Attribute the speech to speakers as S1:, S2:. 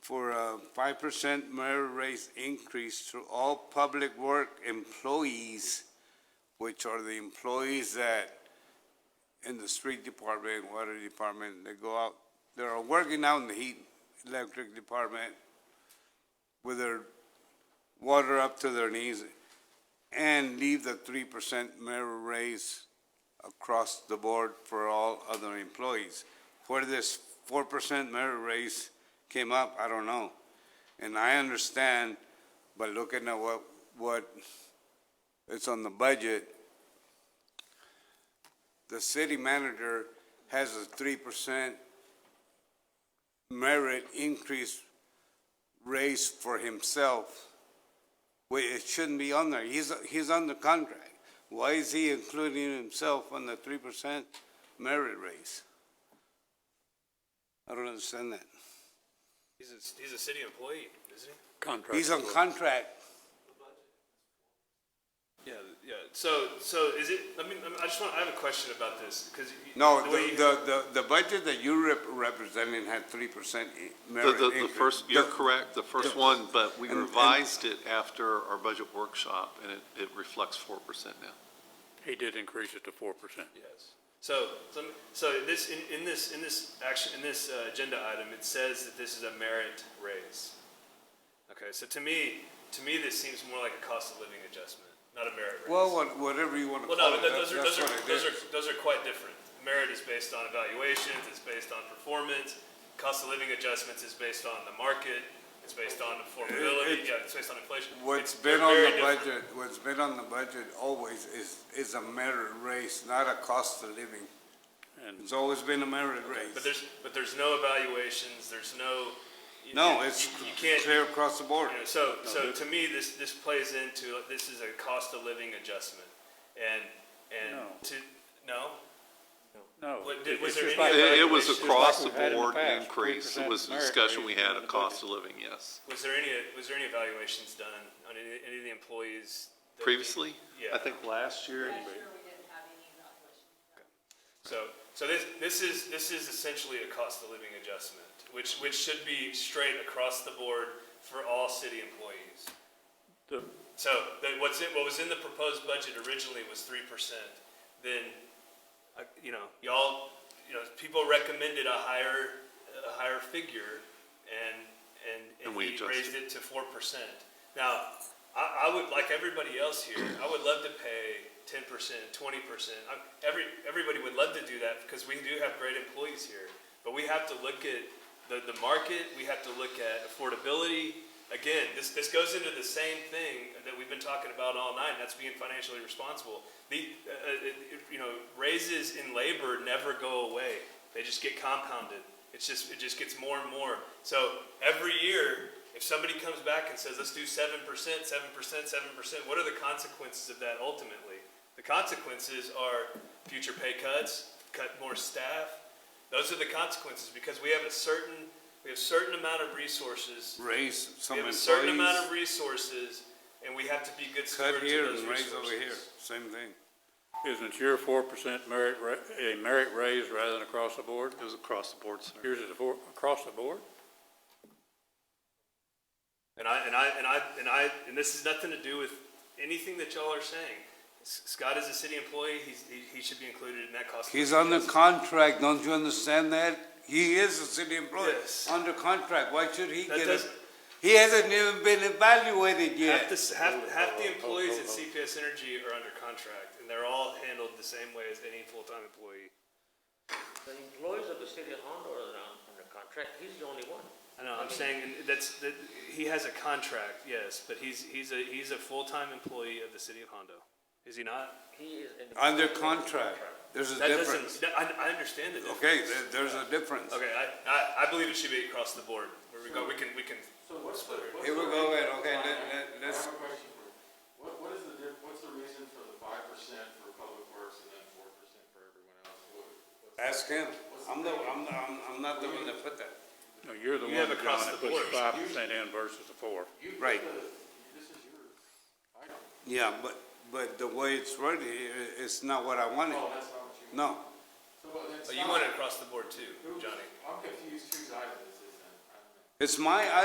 S1: for a five percent merit raise increase to all public work employees, which are the employees that in the street department, water department, they go out, they're working out in the heat, electric department with their water up to their knees and leave the three percent merit raise across the board for all other employees. Where this four percent merit raise came up, I don't know. And I understand, but looking at what, what it's on the budget, the city manager has a three percent merit increase raise for himself. Wait, it shouldn't be on there. He's, he's under contract. Why is he including himself on the three percent merit raise? I don't understand that.
S2: He's a, he's a city employee, isn't he?
S3: Contract.
S1: He's on contract.
S2: Yeah, yeah. So, so is it, I mean, I just want, I have a question about this, because.
S1: No, the, the, the, the budget that you rep- representing had three percent merit
S4: The, the,
S1: increase.
S4: the first, you're
S1: The-
S4: correct, the first
S1: the-
S4: one, but we
S1: and- and-
S4: revised it after our budget workshop, and it, it reflects four percent now.
S3: He did increase it to four percent.
S2: Yes. So, so, so this, in, in this, in this action, in this uh, agenda item, it says that this is a merit raise. Okay, so to me, to me, this seems more like a cost of living adjustment, not a merit raise.
S1: Well, what- whatever you want to
S2: Well,
S1: call
S2: no,
S1: it,
S2: but those
S1: that-
S2: are, those
S1: that's
S2: are,
S1: what it
S2: those
S1: is.
S2: are, those are quite different. Merit is based on evaluations, it's based on performance, cost of living adjustments is based on the market, it's based on
S1: It-
S2: affordability, yeah, it's based on inflation.
S1: What's
S2: It's- they're
S1: been on
S2: very
S1: the
S2: different.
S1: budget, what's been on the budget always is, is a merit raise, not a cost of living.
S3: And
S1: It's always been a merit raise.
S2: But there's, but there's no evaluations, there's no. you-
S1: No,
S2: you-
S1: it's
S2: You you can't,
S1: clear across the board.
S2: You know, so, so to me, this, this plays into, like, this is a cost of living adjustment. And, and
S3: No.
S2: to, no?
S3: no.
S2: What did-
S3: it-
S2: was
S3: it's
S2: there
S3: just
S2: any
S3: like-
S2: other-
S4: It, it was
S2: It's just
S4: across the
S3: like we've had in the
S4: board
S3: past,
S4: increase, it
S3: 3%
S4: was the
S3: merit
S4: discussion we
S3: raise
S4: had
S3: in
S4: of
S3: the
S4: cost of living, yes.
S2: Was there any, was there any evaluations done on any, any of the employees? that-
S4: Previously,
S2: Yeah.
S4: I think last year,
S5: Last year, we didn't have any evaluation.
S2: So, so this, this is, this is essentially a cost of living adjustment, which, which should be straight across the board for all city employees.
S3: the-
S2: So, that what's in, what was in the proposed budget originally was three percent, then, uh, you know, y'all, you know, people recommended a higher, a higher figure, and, and, and
S4: And we
S2: we
S4: adjusted.
S2: raised it to four percent. Now, I, I would, like everybody else here, I would love to pay ten percent, twenty percent, every, everybody would love to do that, because we do have great employees here, but we have to look at the, the market, we have to look at affordability, again, this, this goes into the same thing that we've been talking about all night, and that's being financially responsible. The, uh, uh, it- it- you know, raises in labor never go away. They just get compounded. It's just, it just gets more and more. So every year, if somebody comes back and says, let's do seven percent, seven percent, seven percent, what are the consequences of that ultimately? The consequences are future pay cuts, cut more staff. Those are the consequences because we have a certain, we have certain amount of resources
S1: Raise some
S2: we have a certain amount
S1: employees,
S2: of resources, and we have to be good stewards
S1: cut
S2: of
S1: here
S2: those
S1: and raise over
S2: resources.
S1: here, same thing.
S3: Isn't your four percent merit, ra- a merit raise rather than across the board?
S4: it was across the board, sir.
S3: Yours is a four, across the board?
S2: And I and I and I and I and this has nothing to do with anything that y'all are saying. S- Scott is a city employee. He's, he, he should be included in that cost. of
S1: He's
S2: living
S1: under
S2: adjustment.
S1: contract, don't you understand that? He is a city employee,
S2: Yes.
S1: under contract, why should he
S2: That
S1: get it?
S2: doesn't-
S1: He hasn't even been evaluated
S2: Half
S1: yet.
S2: the, half, half the employees at CPS Energy are under contract, and they're all handled the same way as any full-time employee.
S6: The employees of the city of Hondo are on- under contract, he's the only one.
S2: I know, I'm saying and that's, that, he has a contract, yes, but he's, he's a, he's a full-time employee of the city of Hondo. Is he not?
S6: He is. an-
S1: Under contract, there's a
S2: That doesn't,
S1: difference.
S2: that- I, I understand the difference.
S1: Okay, there- there's a difference.
S2: Okay, I, I, I believe it should be across the board. Where we go, we can, we can,
S7: So what's the? what's
S1: Here we
S7: the
S1: go,
S7: reason-
S1: Ed, okay, let, let,
S7: I
S1: let's,
S7: have a question for you. What, what is the, diff- what's the reason for the five percent for public works and then four percent for everyone else? What-
S1: ask him. I'm the, I'm, the- I'm, I'm not the one that put that.
S3: No, you're the
S2: You
S3: one,
S2: have
S3: John,
S2: across
S3: that
S2: the
S3: puts
S2: board.
S3: five percent in versus the four.
S7: you put
S1: Right.
S7: the- This is yours. I don't,
S1: Yeah, but, but the way it's written here, it's not what I wanted.
S7: oh, that's not what you.
S1: No,
S7: So well,
S1: Oh,
S7: it's
S2: but you
S7: not-
S2: want it across the board too,
S7: who-
S2: Johnny.
S7: I'm confused whose item this is then. I don't know.
S1: it's my